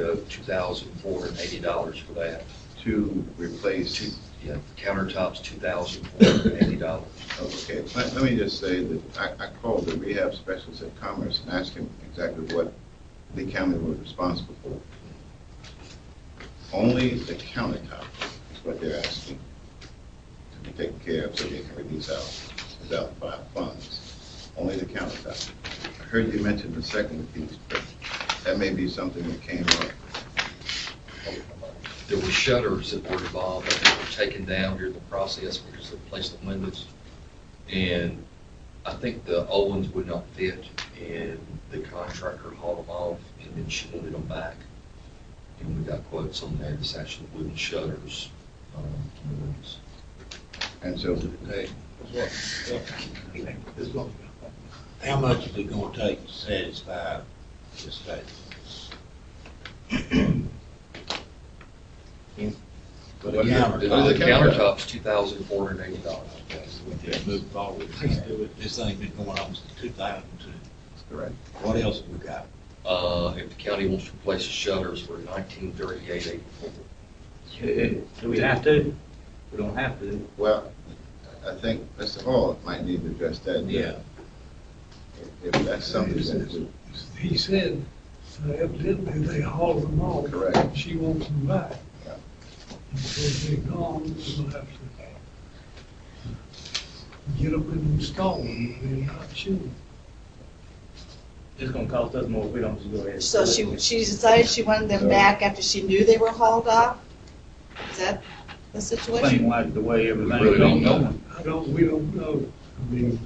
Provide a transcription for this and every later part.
owed two thousand four hundred and eighty dollars for that. to Two, replace, yeah, countertops, two thousand four hundred and eighty dollars. okay, let, let me just say that I, I called the rehab specialist at Commerce and asked him exactly what the county was responsible for. Only the countertop is what they're asking to be taken care of so they can release out, without fi- funds. Only the countertop. I heard you mention the second piece, but that may be something that came up. There were shutters that were involved, but they were taken down during the process because they replaced the windows. And I think the old ones would not fit, and the contractor hauled them off, and then she wanted them back. And we got quotes on that, it's actually wooden shutters. um, on the windows. And so today, How much is it gonna take to satisfy this statement? Hmm? For the What is it? counter, The What is the countertops, two thousand four hundred and eighty dollars. move forward, please do it. This thing been going on since two thousand two. that's correct. What else have we got? Uh, if the county wants to replace the shutters, we're nineteen thirty-eight eighty-four. Do we have to? We don't have to. Well, I think Mr. Hall might need to address that. If if that's something that we He said, uh, evidently they hauled them off. Correct. She wants them back. Yeah. Until they're gone, we'll have to get them and install them, they're not sure. It's gonna cost us more if we don't just go ahead. and So do it. she, she decided she wanted them back after she knew they were hauled off? Is that the Seem situation? like the way everything. really don't know. I don't, we don't know, I mean,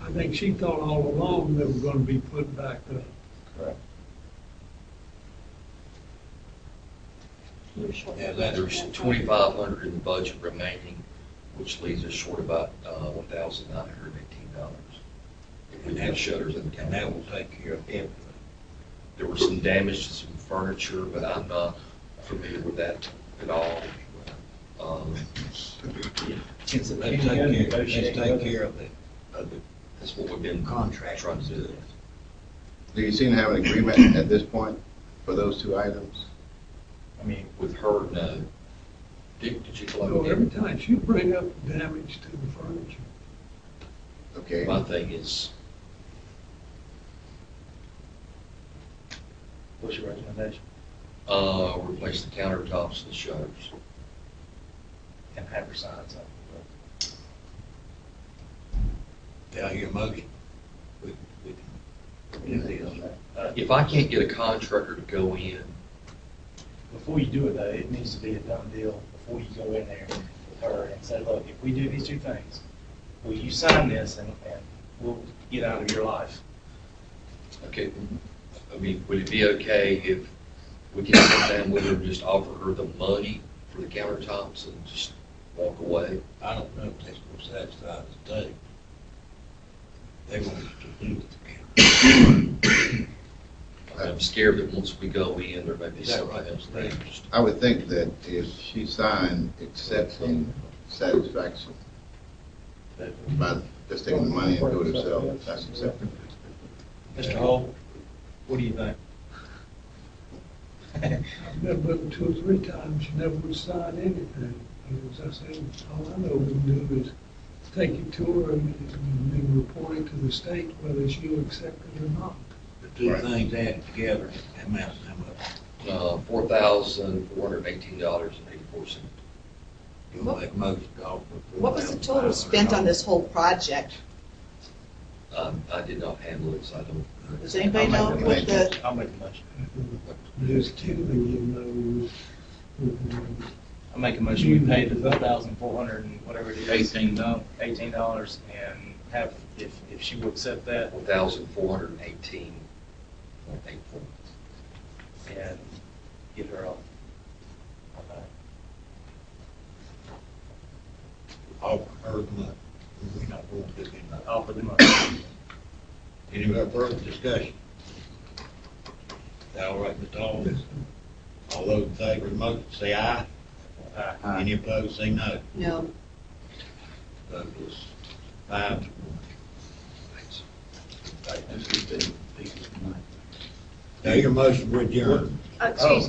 I think she thought all along they were gonna be put back up. Yeah, that there's twenty-five hundred in the budget remaining, which leaves us short about, uh, one thousand nine hundred and eighteen dollars. If we had shutters in the And that county, will take care of everything. there was some damage to some furniture, but I'm not familiar with that at all. Um, Let's take care, let's take care of the, of the that's what we've been contract. trying to do. Do you seem to have an agreement at this point for those two items? I mean, with her, no. Dick, did you So collect every it? time she bring up damage to the furniture, Okay, My thing is, What's your recommendation? uh, replace the countertops and the shutters. And have her sign something. Do I hear a motion? We- we- Uh, If I can't get a contractor to go in before you do it though, it needs to be a done deal before you go in there with her and say, look, if we do these two things, will you sign this and, and we'll get out of your life? Okay, I mean, would it be okay if we could sit down with her and just offer her the money for the countertops and just walk away? I don't know if that's gonna satisfy the state. They want us to do it. I'm scared that once we go in, there may be something else there. I would think that if she signed accepting satisfaction, by just taking the money and do it herself, that's acceptable. Mr. Hall, what do you think? I've met with her two or three times, she never would sign anything. And as I said, all I know we can do is take you to her and and then report it to the state whether she'll accept it or not. The two things added together, that amounts to how much? Uh, four thousand, four hundred and eighteen dollars and eighty-four cents. You'll make most of all. What was the total spent on this whole project? Um, I did not handle it, so I don't. Does anybody know what the, I'll make a motion. Just kidding, you know, it was- I'll make a motion, we pay the four thousand four hundred and whatever it is. Eighteen dollars. Eighteen dollars and have, if, if she will accept that One thousand, four hundred and eighteen point eight four. and give her a. All heard much. We're not going to do anything. Offer the money. Any more further discussion? Is that all right, Mr. Hall? All those in favor of the motion, say aye. Aye. Any opposed, say no. no, Vote is five to one. Thanks. Now, your motion, we're adjourned. Excuse me.